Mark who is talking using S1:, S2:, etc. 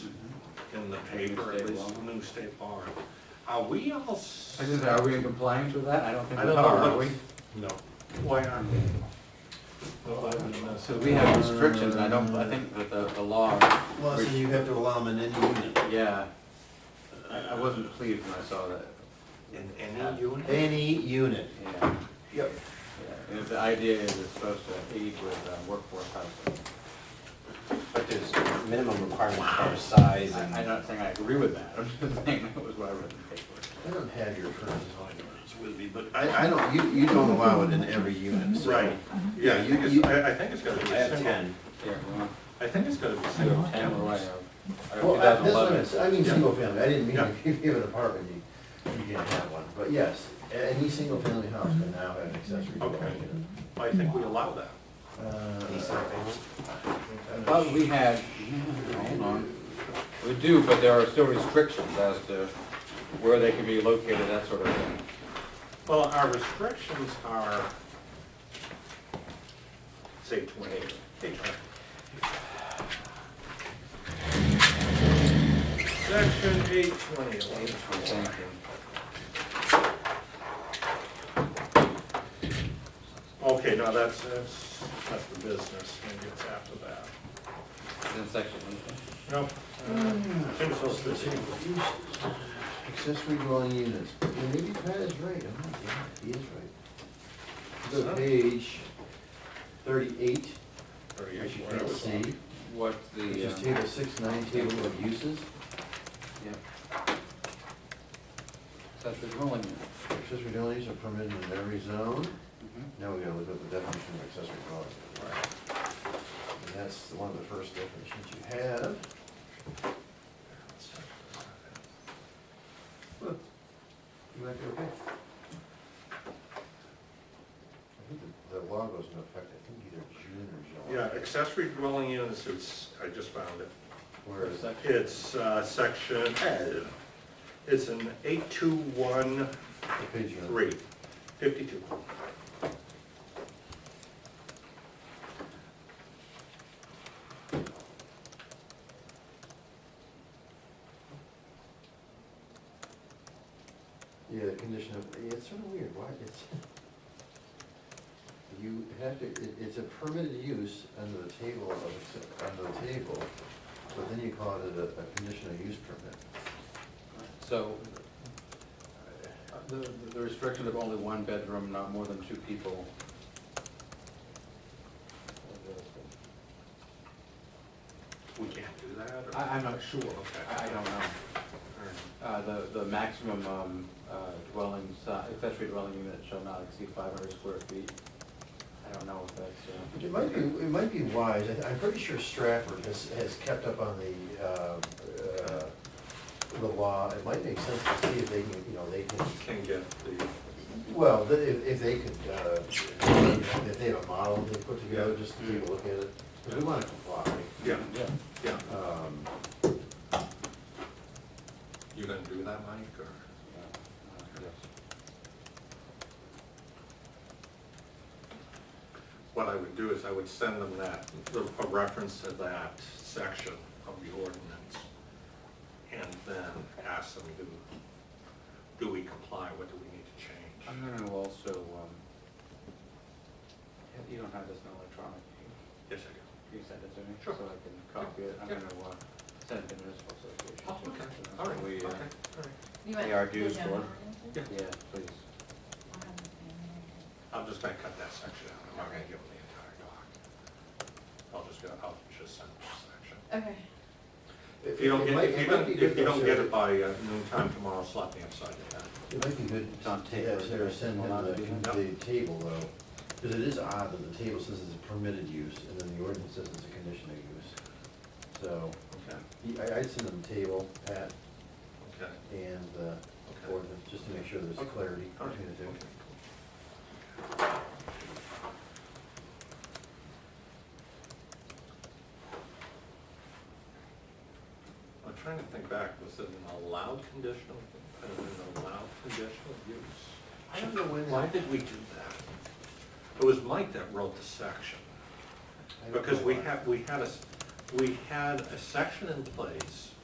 S1: Mm-hmm. in the paper, at least the new state law. Are we all? s-
S2: I just, are we in compliance with that? I don't think
S1: I
S2: we
S1: don't
S2: are,
S1: know
S2: are we?
S1: what- No. Why aren't we?
S2: So we have restrictions, I don't, I think that the, the law,
S3: Well, so you have to allow them in any unit.
S2: yeah. I, I wasn't pleased when I saw that,
S1: In any unit?
S3: Any unit.
S2: yeah.
S1: Yep.
S2: Yeah, And the idea is it's supposed to aid with uh, workforce housing.
S4: But there's minimum requirements for size
S2: I- I'm
S4: and,
S2: not saying I agree with that, I'm just saying that was what I read in the paper.
S3: I don't have your current zoning ordinance with me, but I, I don't, you, you don't allow it in every unit, so.
S1: Right, yeah, you, just- I, I think it's gotta be
S4: Mm-hmm. I
S1: a
S4: have
S1: single,
S4: ten.
S2: Here, well,
S1: I think it's gotta be
S2: I
S1: single
S2: have ten, or I
S1: tenants.
S2: have, uh, I have
S3: Well, uh, I- that's what
S2: 2011.
S3: I'm, s- I mean,
S1: Yeah.
S3: single family, I didn't mean
S1: Yeah.
S3: if you have an apartment, you, you can't have one, but yes, a- any single family house can now have an accessory
S1: Okay.
S3: dwelling unit.
S1: I think we allow that.
S3: Uh, I'm not
S2: But
S3: sure.
S2: we had, hold on, we do, but there are still restrictions as to where they can be located, that sort of thing.
S1: Well, our restrictions are, say, twenty-eight, page one. Section eight twenty,
S2: Thank you.
S1: okay, now that's, that's, that's the business, maybe it's after that.
S2: Then section, okay.
S1: No, uh, Jim's so busy.
S3: Uh, Accessory dwelling units, but yeah, maybe Pat is right, oh my god, he is right. Go
S1: Huh?
S3: to page thirty-eight,
S1: Or you-
S3: which you
S1: whatever.
S3: can't see,
S2: what
S3: which
S2: the, uh,
S3: is table six, nine, table of uses,
S2: yeah. Accessory dwelling unit.
S3: accessory dwelling units are permitted in every zone.
S2: Mhm.
S3: Now we gotta look up the definition of accessory dwelling. And that's the- one of the first definitions you have. Look, You might be okay. I think the- the law goes into effect, I think either June or July.
S1: Yeah, accessory dwelling units, it's, I just found it.
S3: Where is that?
S1: It's uh, section, uh, it's an 8213,
S3: What page you on?
S1: 52.
S3: Yeah, the condition of, yeah, it's sort of weird, why, it's, you have to, it, it's a permitted use under the table of, acce- under the table, but then you call it a, a conditional use permit.
S2: So, uh, the, the restriction of only one bedroom, not more than two people.
S1: We can't do that? or-
S2: I, I'm not sure, I, I don't know.
S1: or-
S2: Uh, the, the maximum, um, uh, dwelling, si- accessory dwelling unit shall not exceed five hundred square feet. I don't know if that's, uh,
S3: It might be, it might be wise, I- I'm pretty sure Stratford has, has kept up on the, uh, uh, the law, it might make sense to see if they can, you know, they can,
S1: Can get the,
S3: well, the- if, if they could, uh, if they have a model they put together, just to take a look at it, because we want to comply.
S1: yeah,
S2: uh, yeah.
S1: yeah.
S3: Um,
S1: You gonna do that, Mike, or? What I would do is I would send them that, a reference to that section of the ordinance, and then ask them, do, do we comply, what do we need to change?
S2: I'm gonna also, um, you don't have this in electronic, you-
S1: Yes, I
S2: you send it to me?
S1: Sure.
S2: So I can copy it, I'm
S1: Yeah.
S2: gonna, uh, send it to the municipal
S1: do.
S2: association. So that's
S1: All
S2: what
S1: right,
S2: we,
S1: oh, okay,
S2: uh,
S1: all right.
S5: You want
S2: They are
S5: the
S2: due
S5: general
S2: for-
S5: ordinances?
S1: Yeah.
S2: Yeah, please.
S5: I'll have the same.
S1: I'm just gonna cut that section out, I'm not gonna give them the entire doc. I'll just go, I'll just send them a section.
S5: Okay.
S3: it-
S1: If you don't
S3: it
S1: get,
S3: might-
S1: if you
S3: it might
S1: don't,
S3: be
S1: if you
S3: good,
S1: don't
S3: though,
S1: get
S3: Sarah.
S1: it by uh, noon time tomorrow, slap me upside the head.
S3: It might be good
S2: Tom
S3: to ta-
S2: Taylor,
S3: Sarah, send him
S2: Milan,
S3: the,
S1: yeah.
S3: the table though, because it is odd that the table says it's a permitted use and then the ordinance says it's a conditional use. So,
S1: Okay,
S3: he- I, I'd send him the table, Pat,
S1: okay.
S3: and the ordinance, just to make sure there's
S1: Okay.
S3: clarity
S1: All right,
S3: between the two.
S1: okay. I'm trying to think back, was it an allowed conditional, an allowed conditional use?
S3: I don't know when
S1: Why
S3: that.
S1: did we do that? It was Mike that wrote the section, because we had, we had a, s- we had a section in place